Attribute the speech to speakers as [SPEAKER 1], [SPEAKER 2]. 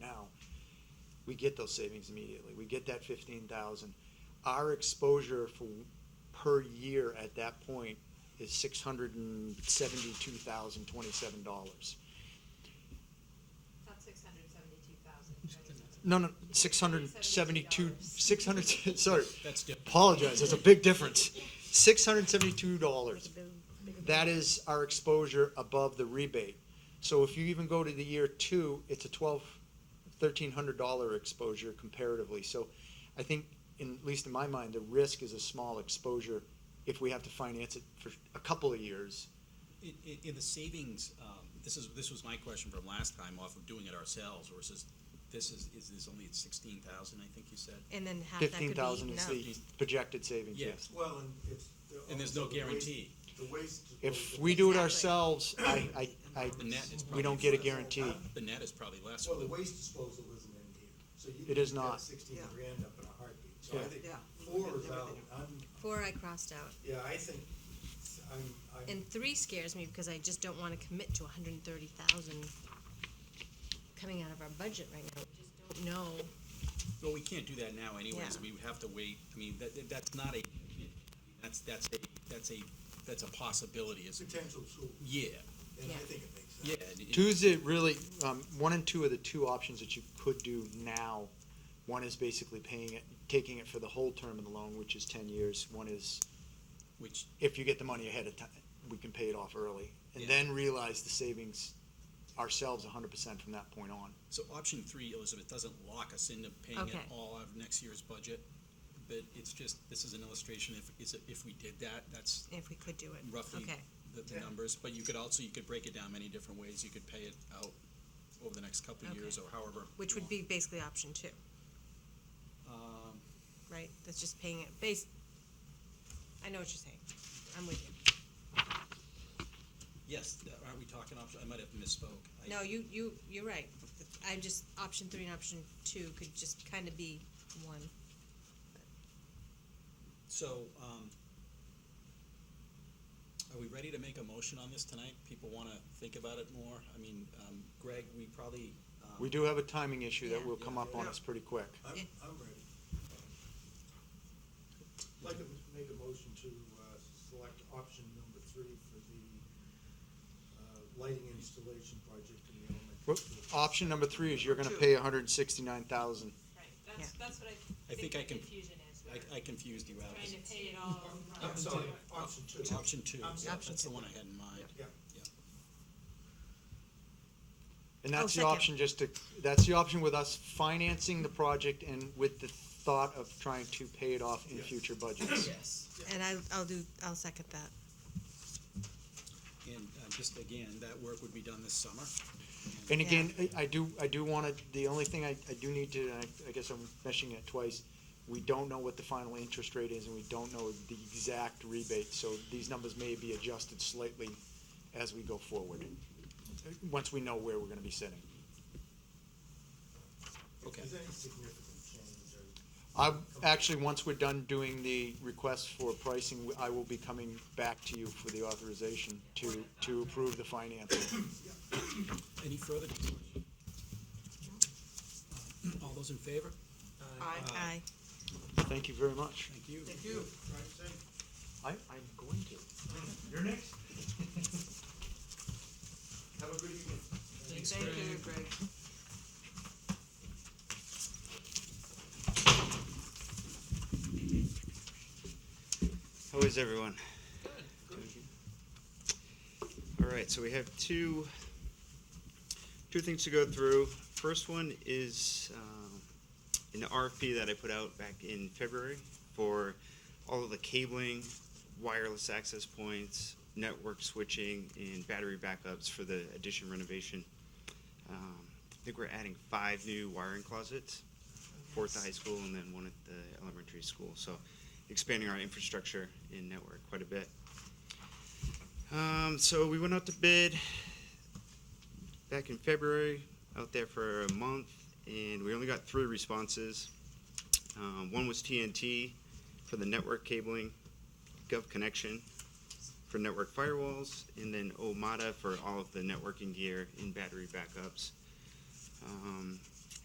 [SPEAKER 1] we get those savings immediately. We get that fifteen thousand. Our exposure for, per year at that point is six hundred and seventy-two thousand, twenty-seven dollars.
[SPEAKER 2] Not six hundred seventy-two thousand.
[SPEAKER 1] No, no, six hundred and seventy-two, six hundred, sorry,
[SPEAKER 3] That's different.
[SPEAKER 1] apologize, there's a big difference. Six hundred and seventy-two dollars that is our exposure above the rebate. So if you even go to the year two, it's a twelve, thirteen hundred dollar exposure comparatively. So I think, in, at least in my mind, the risk is a small exposure if we have to finance it for a couple of years.
[SPEAKER 3] In, in, in the savings, um, this is, this was my question from last time off of doing it ourselves versus, this is, is this only at sixteen thousand, I think you said?
[SPEAKER 4] And then half that could be.
[SPEAKER 1] Fifteen thousand is
[SPEAKER 4] no.
[SPEAKER 1] the projected savings,
[SPEAKER 3] Yeah.
[SPEAKER 1] yes.
[SPEAKER 5] Well, and it's.
[SPEAKER 3] And there's no
[SPEAKER 5] also the waste-
[SPEAKER 3] guarantee.
[SPEAKER 5] The waste.
[SPEAKER 1] If we do it
[SPEAKER 4] Exactly.
[SPEAKER 1] ourselves, I, I, I,
[SPEAKER 3] The net is
[SPEAKER 1] we don't
[SPEAKER 3] probably
[SPEAKER 1] get a
[SPEAKER 3] less.
[SPEAKER 1] guarantee.
[SPEAKER 3] The net is probably less.
[SPEAKER 5] Well, the waste disposal isn't in here, so you.
[SPEAKER 1] It
[SPEAKER 5] can
[SPEAKER 1] is
[SPEAKER 5] get
[SPEAKER 1] not.
[SPEAKER 5] Sixteen
[SPEAKER 4] Yeah.
[SPEAKER 5] grand up in a heartbeat, so I
[SPEAKER 1] Yeah.
[SPEAKER 5] think
[SPEAKER 4] Yeah.
[SPEAKER 5] four is out, I'm,
[SPEAKER 4] Four I crossed out.
[SPEAKER 5] yeah, I think, I'm, I'm,
[SPEAKER 4] And three scares me because I just don't wanna commit to hundred and thirty thousand coming out of our budget right now. We just don't know.
[SPEAKER 3] Well, we can't do that now anyways,
[SPEAKER 4] Yeah.
[SPEAKER 3] we would have to wait, I mean, that, that- that's not a, that's, that's a, that's a, that's a possibility, is,
[SPEAKER 5] potential tool,
[SPEAKER 3] yeah,
[SPEAKER 5] and I
[SPEAKER 4] Yeah.
[SPEAKER 5] think it makes sense.
[SPEAKER 3] yeah. and- and-
[SPEAKER 1] Two's it really, um, one and two are the two options that you could do now. One is basically paying it, taking it for the whole term of the loan, which is ten years. One is
[SPEAKER 3] Which,
[SPEAKER 1] if you get the money ahead of time, we can pay it off early and
[SPEAKER 3] Yeah.
[SPEAKER 1] then realize the savings ourselves hundred percent from that point on.
[SPEAKER 3] so option three, Elizabeth, doesn't lock us into paying it
[SPEAKER 4] Okay.
[SPEAKER 3] all out of next year's budget, but it's just, this is an illustration, if, is it, if we did that, that's
[SPEAKER 4] If we could do it.
[SPEAKER 3] roughly
[SPEAKER 4] Okay.
[SPEAKER 3] the, the
[SPEAKER 5] Yeah.
[SPEAKER 3] numbers, but you could also, you could break it down many different ways, you could pay it out over the next couple of years or
[SPEAKER 4] Okay.
[SPEAKER 3] however.
[SPEAKER 4] Which
[SPEAKER 3] you
[SPEAKER 4] would
[SPEAKER 3] want.
[SPEAKER 4] be basically option two,
[SPEAKER 3] Um,
[SPEAKER 4] right? That's just paying it base. I know what you're saying. I'm with you.
[SPEAKER 3] yes, th- aren't we talking option, I might have misspoke. I-
[SPEAKER 4] No, you, you, you're right. I'm just, option three and option two could just kinda be one.
[SPEAKER 3] So, um, are we ready to make a motion on this tonight? People wanna think about it more? I mean, um, Greg, we probably, um.
[SPEAKER 1] We do have a timing issue that
[SPEAKER 4] Yeah.
[SPEAKER 1] will come up on us pretty quick.
[SPEAKER 5] I'm,
[SPEAKER 4] Yeah.
[SPEAKER 5] I'm ready. I'd like to make a motion to, uh, select option number three for the, uh, lighting installation project in the elementary.
[SPEAKER 1] Whoop.
[SPEAKER 5] school.
[SPEAKER 1] Option number three is you're gonna
[SPEAKER 4] Two.
[SPEAKER 1] pay hundred and sixty-nine thousand.
[SPEAKER 2] Right, that's,
[SPEAKER 4] Yeah.
[SPEAKER 2] that's what I
[SPEAKER 3] I
[SPEAKER 2] think
[SPEAKER 3] think I
[SPEAKER 2] the
[SPEAKER 3] can-
[SPEAKER 2] confusion is. We're
[SPEAKER 3] I, I confused you out.
[SPEAKER 2] Trying to pay it all.
[SPEAKER 5] I'm
[SPEAKER 2] upfront.
[SPEAKER 5] sorry, option two.
[SPEAKER 3] It's option two,
[SPEAKER 5] I'm sorry.
[SPEAKER 3] that's the one I had in mind.
[SPEAKER 5] Yeah.
[SPEAKER 1] And that's the
[SPEAKER 4] Oh, second.
[SPEAKER 1] option just to, that's the option with us financing the project and with the thought of trying to pay it off in
[SPEAKER 5] Yes.
[SPEAKER 1] future budgets.
[SPEAKER 3] Yes.
[SPEAKER 4] And I, I'll do, I'll second that.
[SPEAKER 3] And, uh, just again, that work would be done this summer.
[SPEAKER 1] And
[SPEAKER 4] Yeah.
[SPEAKER 1] again, I- I do, I do want to, the only thing I, I do need to, and I, I guess I'm mentioning it twice, we don't know what the final interest rate is and we don't know the exact rebate, so these numbers may be adjusted slightly as we go forward, uh, once we know where we're going to be sitting.
[SPEAKER 5] If
[SPEAKER 3] Okay.
[SPEAKER 5] there's any significant change or
[SPEAKER 1] I, actually, once we're done doing the request for pricing, I will be coming back to you for the authorization to, to approve the financing.
[SPEAKER 3] Any further discussion? All those in favor?
[SPEAKER 4] Aye.
[SPEAKER 1] Thank you very much.
[SPEAKER 3] Thank you.
[SPEAKER 5] Thank you. Drive safe.
[SPEAKER 1] I, I'm going to.
[SPEAKER 5] You're next. Have a good evening.
[SPEAKER 4] Thank you, Greg.
[SPEAKER 6] How is everyone? All right, so we have two, two things to go through. First one is um, an RFP that I put out back in February for all of the cabling, wireless access points, network switching, and battery backups for the addition renovation. Um, I think we're adding five new wiring closets, four at the high school and then one at the elementary school. So expanding our infrastructure and network quite a bit. Um, so we went out to bid back in February, out there for a month, and we only got three responses. Um, one was TNT for the network cabling, Gov Connection for network firewalls, and then Omada for all of the networking gear and battery backups. Um,